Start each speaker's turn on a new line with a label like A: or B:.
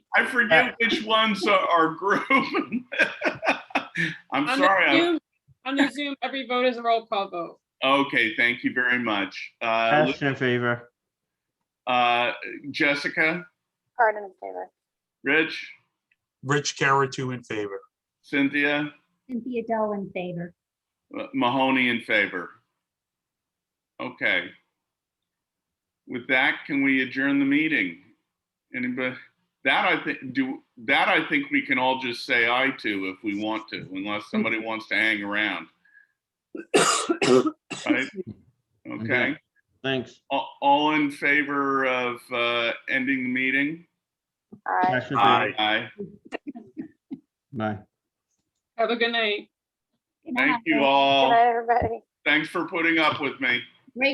A: I forget which ones are- are grouped. I'm
B: On the
A: sorry. I'm-
B: Zoom- On the Zoom, every vote is a roll call vote.
A: Okay, thank you very much. Uh,
C: Ashton in favor.
A: uh, Jessica,
D: Hardin in favor.
A: Rich,
E: Rich Caratu in favor.
A: Cynthia,
F: Cynthia Doe in favor.
A: uh, Mahoney in favor. Okay. With that, can we adjourn the meeting? Anybody, that I think, do, that I think we can all just say aye to if we want to, unless somebody wants to hang around. Right? Okay,
C: Thanks.
A: all, all in favor of, uh, ending the meeting?
D: Aye.
C: Ashton in favor.
A: Aye.
C: Bye.
B: Have a good night.
F: Good night.
A: Thank you
D: Good
A: all.
D: night, everybody.
A: Thanks for putting up with me.